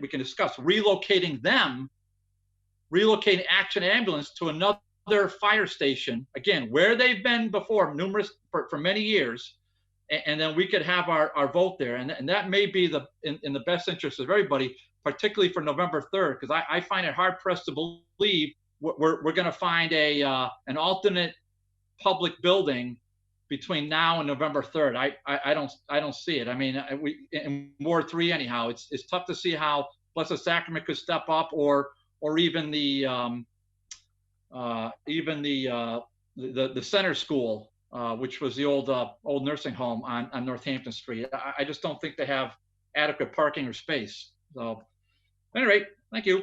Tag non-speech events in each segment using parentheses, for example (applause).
we can discuss relocating them, relocating Action Ambulance to another fire station, again, where they've been before numerous, for, for many years. And, and then we could have our, our vote there. And, and that may be the, in, in the best interest of everybody, particularly for November 3rd, because I, I find it hard pressed to believe we're, we're, we're going to find a, uh, an alternate public building between now and November 3rd. I, I, I don't, I don't see it. I mean, I- we, in Ward 3 anyhow, it's, it's tough to see how Blessed Sacrament could step up or, or even the, um, uh, even the, uh, the, the center school, uh, which was the old, uh, old nursing home on, on Northampton Street. I, I just don't think they have adequate parking or space. So, at any rate, thank you.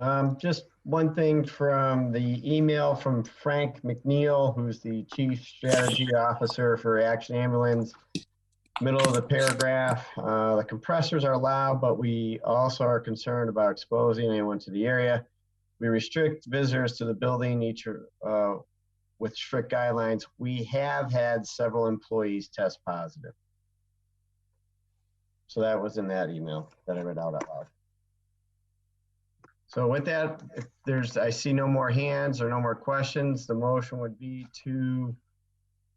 Um, just one thing from the email from Frank McNeil, who's the Chief Strategy Officer for Action Ambulance. Middle of the paragraph, uh, the compressors are allowed, but we also are concerned about exposing anyone to the area. We restrict visitors to the building each, uh, with strict guidelines. We have had several employees test positive. So that was in that email that I read out out loud. So with that, if there's, I see no more hands or no more questions, the motion would be to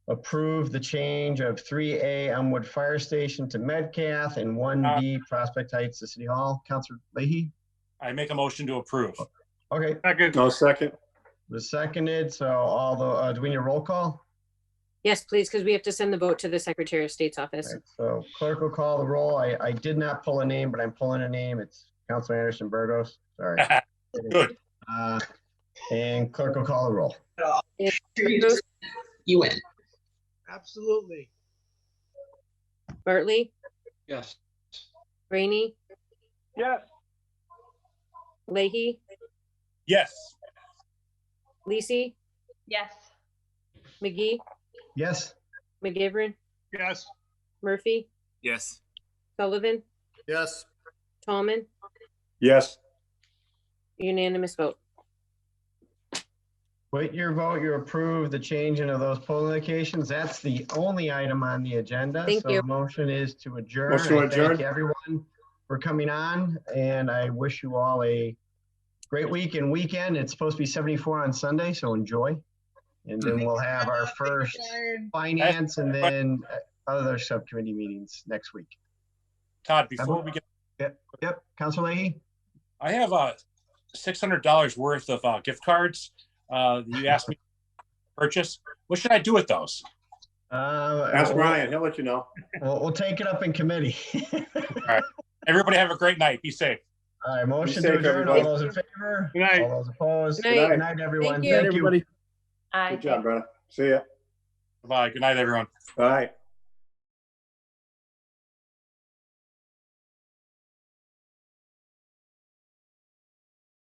approve the change of 3A Elmwood Fire Station to Medcath and 1B Prospect Heights to City Hall. Counselor Leahy? I make a motion to approve. Okay, Second. I'll second. was seconded, so all the, uh, do we need a roll call? Yes, please, because we have to send the vote to the Secretary of State's office. Alright, So clerk will call the roll. I, I did not pull a name, but I'm pulling a name. It's Counselor Anderson Burgos, sorry. Good. Uh, And clerk will call the roll. Burgos, You win. Absolutely. Bartley, Yes. Rainey, Yes. Leahy, Yes. Lisi, Yes. McGee, Yes? McGivern, Yes. Murphy, Yes. Sullivan, Yes. Tallman, Yes. unanimous vote. With your vote, you approve the changing of those polling locations. That's the only item on the agenda. Thank So you. the motion is to adjourn. Motion to I Thank adjourn. everyone for coming on, and I wish you all a great week and weekend. It's supposed to be 74 on Sunday, so enjoy. And then we'll have our first finance and then uh, other subcommittee meetings next week. Todd, before we get, Yep, Counselor Leahy? I have uh six hundred dollars worth of uh, gift cards uh, that you asked me to purchase. What should I do with those? Uh, Ask we'll- Ryan, he'll let you know. We'll, we'll take it up in committee. (laughs) Everybody have a great night. Be safe. All right, motion safe, to adjourn. All everybody. those in favor? Good night. All those opposed? Good night. Good night, everyone. you. Thank you. I. Good job, brother. See ya. Bye. Good night, everyone. All right.